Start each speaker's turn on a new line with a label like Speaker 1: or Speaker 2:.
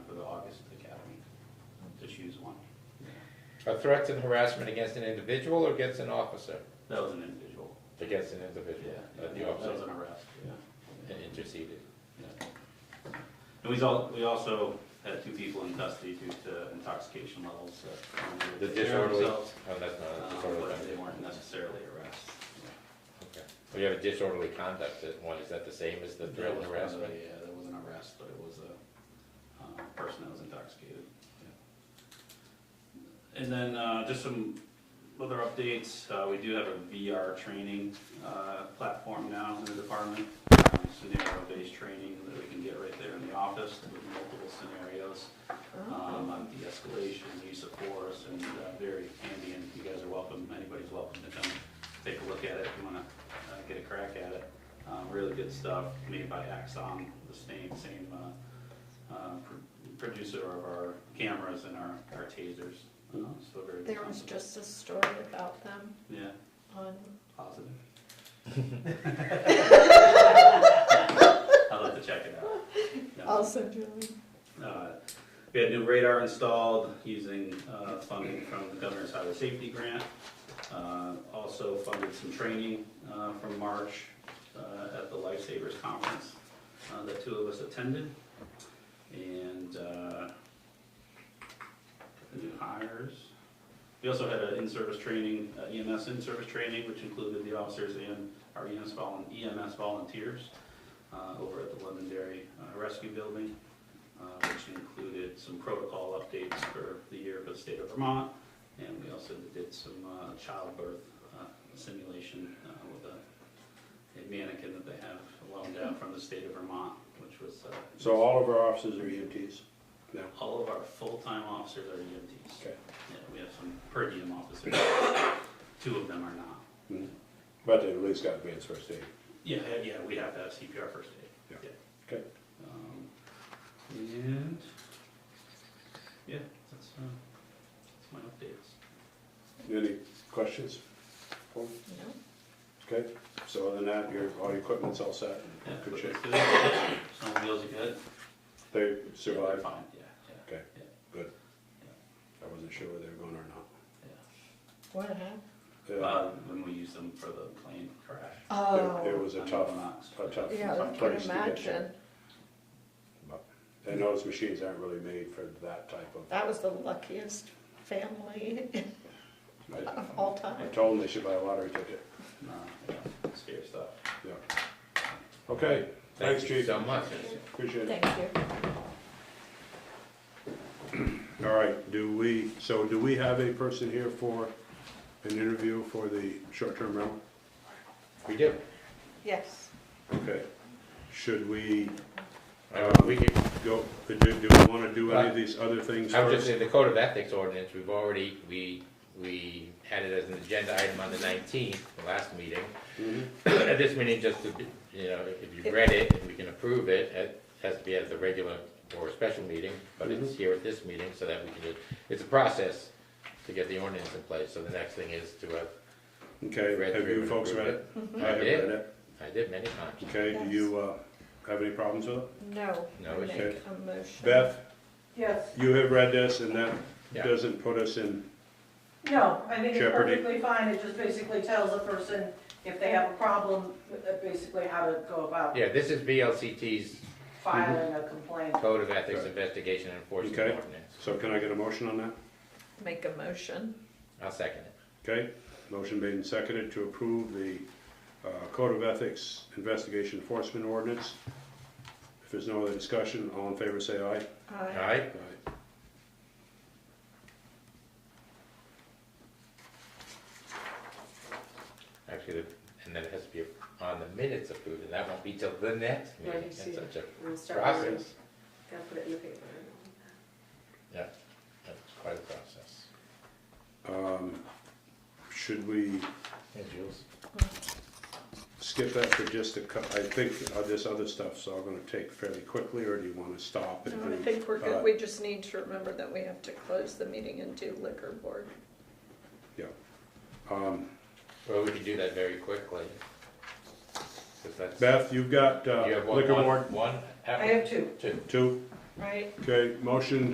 Speaker 1: choose one.
Speaker 2: Are threats and harassment against an individual or against an officer?
Speaker 1: That was an individual.
Speaker 2: Against an individual,
Speaker 1: Yeah,
Speaker 2: not
Speaker 1: yeah,
Speaker 2: the
Speaker 1: that was
Speaker 2: officer
Speaker 1: an arrest, yeah.
Speaker 2: interceded.
Speaker 1: yeah. And we all, we also had two people in custody due to intoxication levels that. um,
Speaker 2: The
Speaker 1: took care of
Speaker 2: disorderly, oh,
Speaker 1: themselves,
Speaker 2: that's
Speaker 1: um,
Speaker 2: not a disorderly
Speaker 1: But they
Speaker 2: conduct.
Speaker 1: weren't necessarily arrests.
Speaker 2: Okay. We have a disorderly conduct that one, is that the same as the
Speaker 1: There
Speaker 2: threat and
Speaker 1: was one of the-
Speaker 2: harassment?
Speaker 1: Yeah, there was an arrest, but it was a uh, person that was intoxicated. And then uh, just some other updates, Uh, we do have a VR training uh, platform now in the department. Um, Scenario-based training that we can get right there in the office with multiple scenarios um, on de-escalation, use of force, and uh, very handy, and you guys are welcome, anybody's welcome to come take a look at it if you wanna uh, get a crack at it. Um, Really good stuff made by Axon, the same, same uh, uh, pr- producer of our cameras and our our tasers, Uh, so very.
Speaker 3: There was just a story about them
Speaker 1: Yeah,
Speaker 3: on,
Speaker 1: positive. I'll have to check it out. Yeah.
Speaker 3: also Julie.
Speaker 1: Uh, We had new radar installed using uh, funding from the Governor's Highway Safety Grant. Uh, Also funded some training uh, from March uh, at the Lifesavers Conference uh, that two of us attended. And uh, the new hires. We also had an in-service training, uh, EMS in-service training, which included the officers and our E EMS volun- EMS volunteers uh, over at the Londonderry uh, Rescue Building uh, which included some protocol updates for the year for the state of Vermont. And we also did some uh, childbirth uh, simulation uh, with a- a mannequin that they have loaned out from the state of Vermont, which was. uh,
Speaker 4: So all of our officers are E EMTs? No.
Speaker 1: All of our full-time officers are EMTs.
Speaker 4: Okay.
Speaker 1: Yeah, we have some per diem officers. Two of them are not.
Speaker 4: Hmm. But they at least got advanced first aid.
Speaker 1: Yeah, yeah, we have to have CPR first aid.
Speaker 4: Yeah. Okay.
Speaker 1: Um, And, yeah, that's, uh, that's my updates.
Speaker 4: Any questions?
Speaker 3: No?
Speaker 4: Okay, so other than that, your, all your equipment's all set,
Speaker 1: Yeah,
Speaker 4: good shape.
Speaker 1: but it's good. Snowmobiles are good.
Speaker 4: They
Speaker 1: They're
Speaker 4: survived?
Speaker 1: Fine, yeah, yeah,
Speaker 4: Okay, good. I wasn't sure whether they were going or not.
Speaker 1: yeah.
Speaker 3: What happened?
Speaker 4: Uh,
Speaker 1: Uh, when we used them for the plane crash.
Speaker 4: It
Speaker 3: Oh,
Speaker 4: was a
Speaker 1: on
Speaker 4: tough,
Speaker 1: Equinox.
Speaker 4: a tough
Speaker 3: yeah, I can
Speaker 4: place to get
Speaker 3: imagine.
Speaker 4: you. But- And those machines aren't really made for that type of,
Speaker 3: That was the luckiest family
Speaker 4: I
Speaker 3: of all
Speaker 4: I
Speaker 3: time.
Speaker 4: told them they should buy a lottery ticket,
Speaker 1: No, yeah, scary stuff.
Speaker 4: yeah. Okay, thanks,
Speaker 2: Thank you
Speaker 4: chief,
Speaker 2: so much.
Speaker 4: appreciate it.
Speaker 3: Thank you.
Speaker 4: All right, do we, so do we have a person here for an interview for the short-term rental?
Speaker 2: We do.
Speaker 3: Yes.
Speaker 4: Okay, should we
Speaker 2: Uh, We can,
Speaker 4: go, do, do we wanna do any of these other things
Speaker 2: I would Uh, just say
Speaker 4: first?
Speaker 2: the code of ethics ordinance, we've already, we, we had it as an agenda item on the nineteenth, the last meeting.
Speaker 4: Mhm.
Speaker 2: At this meeting, just to, be- you know, if you've read it, if we can approve it, it has to be at the regular or special meeting, but
Speaker 4: Mm-hmm.
Speaker 2: it's here at this meeting so that we can, it's a process to get the ordinance in place, so the next thing is to have,
Speaker 4: Okay,
Speaker 2: Read
Speaker 4: have
Speaker 2: through
Speaker 4: you
Speaker 2: and
Speaker 4: folks read
Speaker 2: approved
Speaker 4: it?
Speaker 2: I
Speaker 4: I have
Speaker 2: did.
Speaker 4: read it.
Speaker 2: I did many times.
Speaker 4: Okay, do
Speaker 3: Yes.
Speaker 4: you, uh, have any problems with it?
Speaker 3: No.
Speaker 2: No,
Speaker 3: Make
Speaker 4: okay.
Speaker 3: a motion.
Speaker 4: Beth,
Speaker 5: Yes,
Speaker 4: you have read this and that
Speaker 2: Yeah.
Speaker 4: doesn't put us in,
Speaker 5: no, I think it's
Speaker 4: Jeopardy.
Speaker 5: perfectly fine, it just basically tells a person if they have a problem, uh, basically how to go about
Speaker 2: Yeah, this is VLCT's
Speaker 5: filing a complaint.
Speaker 2: Code of Ethics
Speaker 4: Right.
Speaker 2: Investigation and Enforcement
Speaker 4: Okay.
Speaker 2: Ordinance.
Speaker 4: so can I get a motion on that?
Speaker 3: Make a motion.
Speaker 2: I'll second it.
Speaker 4: Okay, motion made and seconded to approve the uh, Code of Ethics Investigation Enforcement Ordinance. If there's no other discussion, all in favor say aye.
Speaker 2: All
Speaker 3: Aye.
Speaker 2: right?
Speaker 4: Aye.
Speaker 2: Actually, the- and then it has to be on the minutes approved, and that won't be till the next
Speaker 6: Yeah, I
Speaker 2: meeting.
Speaker 6: can see
Speaker 2: It's such a
Speaker 6: We'll start with,
Speaker 2: process.
Speaker 6: gotta put it in the paper.
Speaker 2: Yeah, that's quite a process.
Speaker 4: Um, Should we
Speaker 2: Hey, Jules.
Speaker 4: skip that for just a cou- I think uh, this other stuff's all gonna take fairly quickly, or do you wanna stop? and
Speaker 3: No, I
Speaker 4: do-
Speaker 3: think we're
Speaker 4: uh,
Speaker 3: good. We just need to remember that we have to close the meeting and do liquor board.
Speaker 4: um,
Speaker 2: Well, we could do that very quickly. 'Cause that's-
Speaker 4: Beth, you've got uh,
Speaker 2: You have one-
Speaker 4: liquor
Speaker 2: one-
Speaker 4: board,
Speaker 2: One.
Speaker 5: I have two.
Speaker 2: Two.
Speaker 4: two,
Speaker 3: Right.
Speaker 4: okay, motion